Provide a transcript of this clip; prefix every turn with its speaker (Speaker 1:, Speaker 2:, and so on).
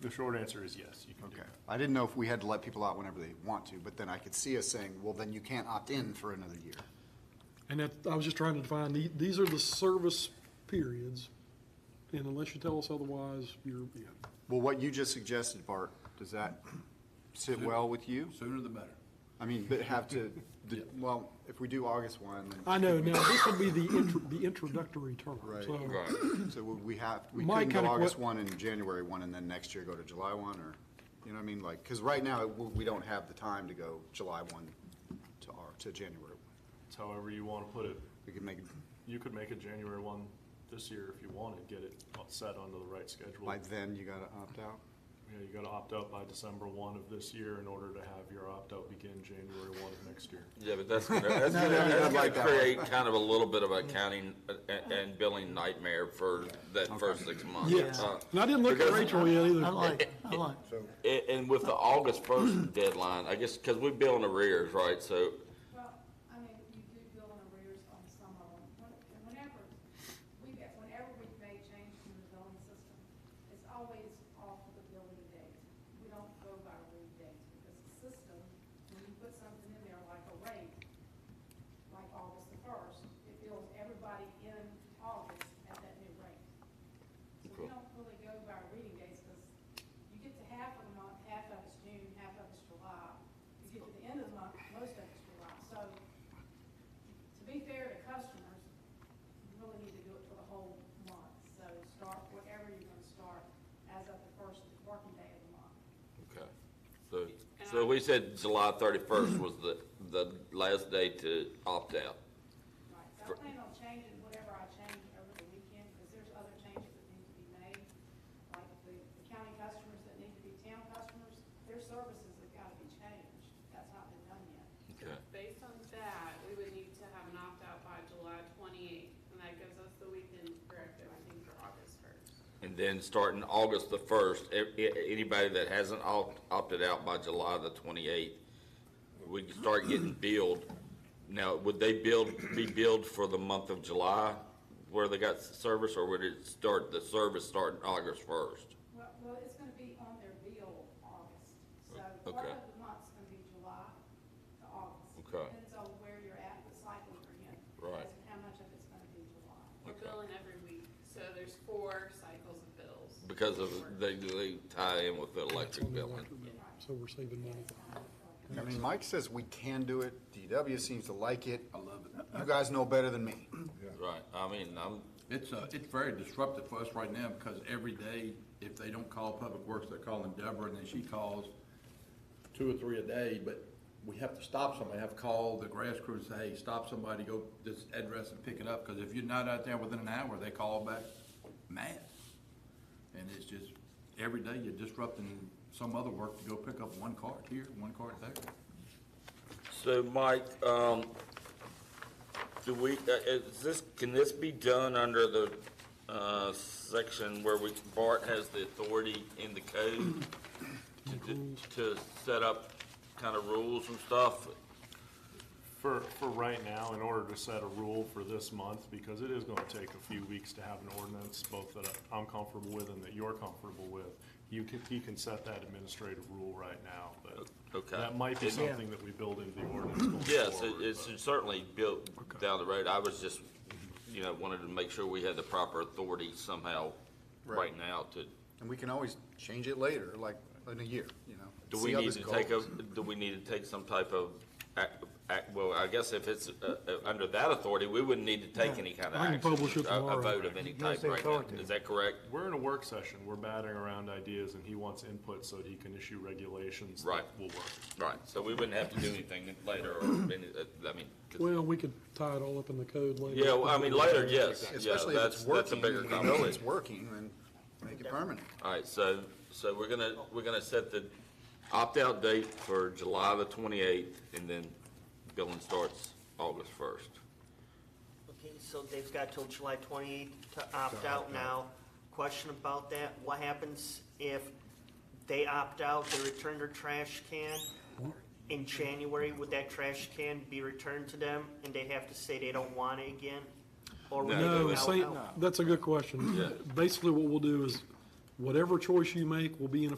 Speaker 1: The short answer is yes, you can do
Speaker 2: Okay.
Speaker 1: that.
Speaker 2: I didn't know if we had to let people out whenever they want to, but then I could see us saying, well, then you can't opt in for another year.
Speaker 3: And that, I was just trying to define, the- these are the service periods, and unless you tell us otherwise, you're, yeah.
Speaker 2: Well, what you just suggested, Bart, does that sit well with you?
Speaker 4: Sooner the better.
Speaker 2: I mean, but have to, the- well, if we do August one, then.
Speaker 3: I know, now, this would be the intro, the introductory term,
Speaker 2: Right.
Speaker 3: so.
Speaker 2: So would we have, we
Speaker 3: My
Speaker 2: couldn't go
Speaker 3: kinda que-
Speaker 2: August one and January one, and then next year go to July one, or, you know what I mean? Like, because right now, we we don't have the time to go July one to our, to January one.
Speaker 1: It's however you want to put it.
Speaker 2: We could make, it
Speaker 1: You could make a January one this year if you wanted, get it set onto the right schedule.
Speaker 2: by then, you gotta opt out.
Speaker 1: You know, you gotta opt out by December one of this year in order to have your opt-out begin January one of next year.
Speaker 5: Yeah, but that's gonna, that's gonna, that's gonna create kind of a little bit of accounting and, and billing nightmare for that first six months.
Speaker 3: Yes,
Speaker 5: Uh,
Speaker 3: and I didn't look at
Speaker 5: because-
Speaker 3: Rachel yet
Speaker 6: I
Speaker 3: either.
Speaker 6: like, I like.
Speaker 5: And, and with the August first deadline, I guess, cause we bill in arrears, right, so,
Speaker 7: Well, I mean, you do bill in arrears on some of them. When- and Whenever, we, get- whenever we've made changes in the billing system, it's always off of the billing date. We don't go by read dates because the system, when you put something in there like a rate, like August the first, it bills everybody in August at that new rate. So we
Speaker 5: Cool.
Speaker 7: don't really go by reading dates because you get to half of the month, half of it's June, half of it's July. You get to the end of the month, most of it's July. So to be fair to customers, you really need to do it for the whole month. So start whatever you're going to start as of the first working day of the month.
Speaker 5: okay. So, so we said July thirty-first was the, the last day to opt out.
Speaker 7: Right, so
Speaker 5: For-
Speaker 7: I plan on changing whatever I change over the weekend, because there's other changes that need to be made. Like the the county customers that need to be town customers, their services have got to be changed. That's not been done yet.
Speaker 5: Okay.
Speaker 8: Based on that, we would need to have an opt-out by July twenty-eighth, and that gives us the weekend corrective, I think, for August first.
Speaker 5: And then starting August the first, e, anybody that hasn't opt- opted out by July the twenty-eighth, we can start getting billed. Now, would they build, be billed for the month of July where they got s- service, or would it start, the service starting August first?
Speaker 7: Well, well, it's going to be on their bill August. So part
Speaker 5: Okay.
Speaker 7: of the month's going to be July to August.
Speaker 5: Okay.
Speaker 7: Depends on where you're at, the cycle you're in.
Speaker 5: Right.
Speaker 7: as to How much of it's going to be July.
Speaker 8: We're
Speaker 5: Okay.
Speaker 8: billing every week, so there's four cycles of bills.
Speaker 5: Because of, they, they tie in with the electric billing.
Speaker 3: So we're saving money.
Speaker 2: I mean, Mike says we can do it, DW seems to like it. I love it. You guys know better than me.
Speaker 5: Right, I mean, I'm,
Speaker 4: It's, uh, it's very disruptive for us right now because every day, if they don't call Public Works, they're calling Deborah and then she calls two or three a day, but we have to stop somebody, have to call the grass crew and say, hey, stop somebody, go this address and pick it up, because if you're not out there within an hour, they call back mad. And it's just, every day you're disrupting some other work to go pick up one cart here, one cart there.
Speaker 5: So, Mike, um, do we, uh, is this, can this be done under the, uh, section where we, Bart has the authority in the code to, d- to set up kind of rules and stuff?
Speaker 1: For, for right now, in order to set a rule for this month, because it is gonna take a few weeks to have an ordinance, both that I'm comfortable with and that you're comfortable with, you can, he can set that administrative rule right now, but
Speaker 5: Okay.
Speaker 1: that might be
Speaker 5: Yeah.
Speaker 1: something that we build into the ordinance going forward.
Speaker 5: Yes, it, it
Speaker 1: but-
Speaker 5: should certainly built down the road. I was just, you know, wanted to make sure we had the proper authority somehow right
Speaker 2: Right.
Speaker 5: now to,
Speaker 2: And we can always change it later, like in a year, you know?
Speaker 5: Do
Speaker 2: See
Speaker 5: we
Speaker 2: how
Speaker 5: need
Speaker 2: this
Speaker 5: to take a,
Speaker 2: goes.
Speaker 5: do we need to take some type of, ac- ac- well, I guess if it's uh, uh, under that authority, we wouldn't need to take any kind of
Speaker 3: I can
Speaker 5: action.
Speaker 3: publish it
Speaker 5: a-
Speaker 3: tomorrow.
Speaker 5: A vote of any
Speaker 6: Give us
Speaker 5: type
Speaker 6: the
Speaker 5: right now.
Speaker 6: authority.
Speaker 5: Is that correct?
Speaker 1: We're in a work session, we're batting around ideas, and he wants input so that he can issue regulations that
Speaker 5: Right.
Speaker 1: will work.
Speaker 5: Right, so we wouldn't have to do anything later or, any- uh, I mean, 'cause-
Speaker 3: Well, we could tie it all up in the code later.
Speaker 5: yeah, well, I mean, later, yes, yeah,
Speaker 2: Especially if
Speaker 5: that's,
Speaker 2: it's
Speaker 5: that's a
Speaker 2: working,
Speaker 5: bigger
Speaker 2: you know it's
Speaker 5: conversation.
Speaker 2: working, then make it permanent.
Speaker 5: All right, so, so we're gonna, we're gonna set the opt-out date for July the twenty-eighth, and then billing starts August first.
Speaker 6: Okay, so they've got till July twenty-eighth to opt out now. Question about that, what happens if they opt out, they return their trash can? In January, would that trash can be returned to them and they have to say they don't want it again? Or would they
Speaker 5: No,
Speaker 3: No,
Speaker 6: go
Speaker 3: it's saying,
Speaker 6: out?
Speaker 3: that's a good question.
Speaker 5: Yeah.
Speaker 3: Basically, what we'll do is, whatever choice you make will be in